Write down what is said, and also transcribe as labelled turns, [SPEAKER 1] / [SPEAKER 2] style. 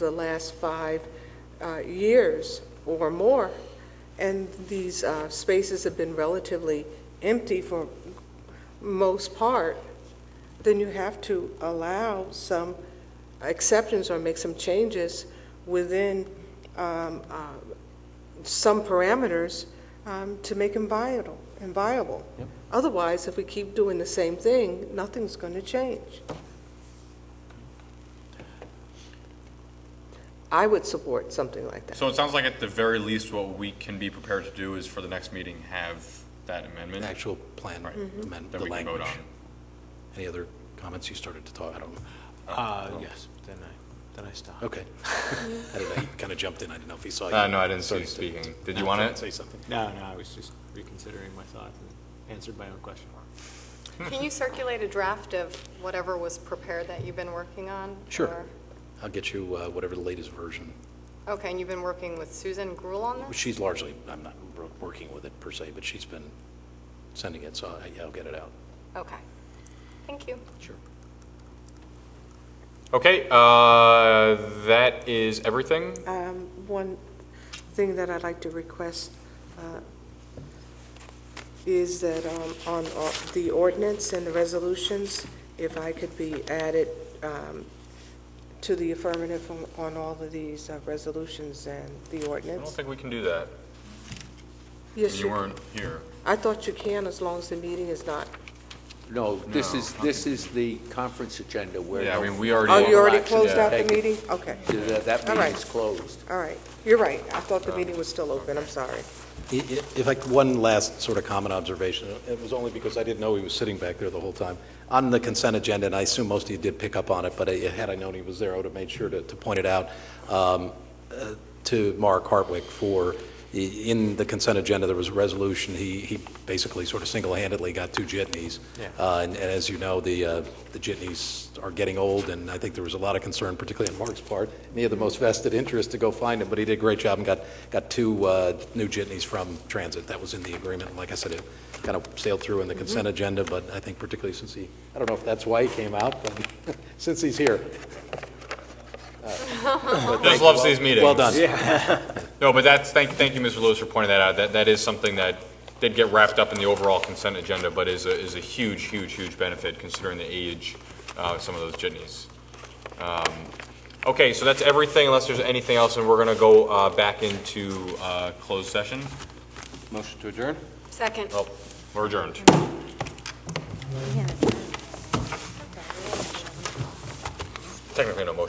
[SPEAKER 1] the last five uh, years or more, and these uh, spaces have been relatively empty for most part, then you have to allow some exceptions or make some changes within um, uh, some parameters um, to make them viable, and viable. Otherwise, if we keep doing the same thing, nothing's going to change. I would support something like that.
[SPEAKER 2] So it sounds like at the very least, what we can be prepared to do is for the next meeting, have that amendment
[SPEAKER 3] An actual plan
[SPEAKER 2] Right.
[SPEAKER 3] amendment,
[SPEAKER 2] that
[SPEAKER 3] the
[SPEAKER 2] we can vote
[SPEAKER 3] language.
[SPEAKER 2] on.
[SPEAKER 3] Any other comments you started to talk, I don't know.
[SPEAKER 4] Uh, yes, then I, then I stopped.
[SPEAKER 3] Okay. I didn't know, he kind of jumped in, I didn't know if he saw you.
[SPEAKER 2] Uh, no, I didn't see you
[SPEAKER 3] Started to-
[SPEAKER 2] speaking. Did you
[SPEAKER 3] No,
[SPEAKER 2] want
[SPEAKER 3] trying
[SPEAKER 2] it?
[SPEAKER 3] to Say something.
[SPEAKER 4] No, no, I was just reconsidering my thoughts and answered my own question.
[SPEAKER 5] Can you circulate a draft of whatever was prepared that you've been working on?
[SPEAKER 3] Sure.
[SPEAKER 5] or-
[SPEAKER 3] I'll get you uh, whatever the latest version.
[SPEAKER 5] Okay, and you've been working with Susan Gruel on this?
[SPEAKER 3] She's largely, I'm not wor- working with it per se, but she's been sending it, so I- yeah, I'll get it out.
[SPEAKER 5] Okay, thank you.
[SPEAKER 3] Sure.
[SPEAKER 2] Okay, uh, that is everything.
[SPEAKER 1] Um, One thing that I'd like to request uh, is that um, on all- the ordinance and the resolutions, if I could be added um, to the affirmative on- on all of these uh, resolutions and the
[SPEAKER 2] I don't
[SPEAKER 1] ordinance.
[SPEAKER 2] think we can do that.
[SPEAKER 1] Yes,
[SPEAKER 2] You
[SPEAKER 1] you-
[SPEAKER 2] weren't here.
[SPEAKER 1] I thought you can, as long as the meeting is not.
[SPEAKER 6] No, this
[SPEAKER 2] No,
[SPEAKER 6] is, this is the conference agenda where.
[SPEAKER 2] Yeah, I
[SPEAKER 6] no
[SPEAKER 2] mean, we already-
[SPEAKER 1] Oh, you already
[SPEAKER 6] action
[SPEAKER 1] closed
[SPEAKER 6] is
[SPEAKER 1] out the
[SPEAKER 6] taken.
[SPEAKER 1] meeting? Okay,
[SPEAKER 6] That that
[SPEAKER 1] All right.
[SPEAKER 6] meeting's closed.
[SPEAKER 1] all right. You're right. I thought
[SPEAKER 2] Uh,
[SPEAKER 1] the meeting was still open. I'm sorry.
[SPEAKER 3] I- i- If I, could- one last sort of common observation, it was only because I didn't know he was sitting back there the whole time. On the consent agenda, and I assume most of you did pick up on it, but I- had I known he was there, I would have made sure to, to point it out um, uh, to Mark Hartwick for, i- in the consent agenda, there was a resolution, he, he basically sort of single-handedly got two jitneys.
[SPEAKER 4] Yeah.
[SPEAKER 3] Uh, And and as you know, the, uh, the jitneys are getting old, and I think there was a lot of concern, particularly on Mark's part, and he had the most vested interest to go find him, but he did a great job and got, got two uh, new jitneys from Transit. That was in the agreement, and like I said, it kind of sailed through in the consent agenda, but I think particularly since he, I don't know if that's why he came out, but since he's here.
[SPEAKER 2] Just loves these meetings.
[SPEAKER 3] Well done.
[SPEAKER 2] No, but that's, thank, thank you, Mr. Lewis, for pointing that out. That, that is something that did get wrapped up in the overall consent agenda, but is a, is a huge, huge, huge benefit considering the age uh, of some of those jitneys. Um, Okay, so that's everything unless there's anything else, and we're going to go uh, back into uh, closed session.
[SPEAKER 6] Motion to adjourn?
[SPEAKER 5] Second.
[SPEAKER 2] Oh, we're adjourned. Technically, no motion.